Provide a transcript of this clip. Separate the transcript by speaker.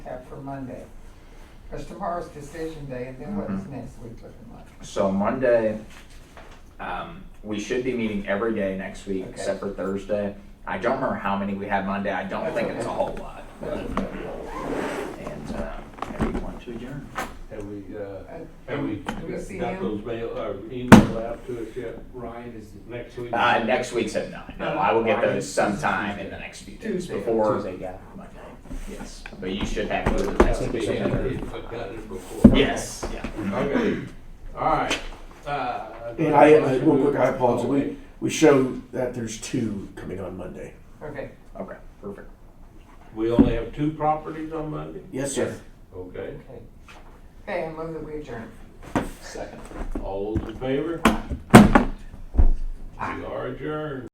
Speaker 1: uh, for Monday? Because tomorrow's decision day, and then what is
Speaker 2: Mhm.
Speaker 1: next week looking like?
Speaker 2: So Monday, um, we should be meeting every day next week
Speaker 1: Okay.
Speaker 2: except for Thursday. I don't remember how many we had Monday. I don't
Speaker 1: That's
Speaker 2: think
Speaker 1: okay.
Speaker 2: it's a whole lot. And, um, maybe one to adjourn.
Speaker 3: Have we, uh,
Speaker 1: Uh,
Speaker 3: have we
Speaker 1: do we see
Speaker 3: got
Speaker 1: him?
Speaker 3: those mail, or email out to us yet?
Speaker 4: Ryan is the
Speaker 3: Next week?
Speaker 2: Uh, next week's at nine. No, I will get those sometime in the next few days
Speaker 1: Tuesday.
Speaker 2: before
Speaker 4: Tuesday guy.
Speaker 2: Monday. Yes, but you should have those
Speaker 3: Has
Speaker 2: next
Speaker 3: to be,
Speaker 2: week.
Speaker 3: in there if I've got it before.
Speaker 2: Yes, yeah.
Speaker 3: Okay, all right. Uh,
Speaker 5: And I, I real quick, I apologize. We, we show that there's two coming on Monday.
Speaker 1: Okay,
Speaker 2: Okay, perfect.
Speaker 3: We only have two properties on Monday?
Speaker 5: Yes, sir.
Speaker 3: Okay,
Speaker 1: okay. Okay, I move that we adjourn.
Speaker 2: Second.
Speaker 3: all those in favor? We are adjourned.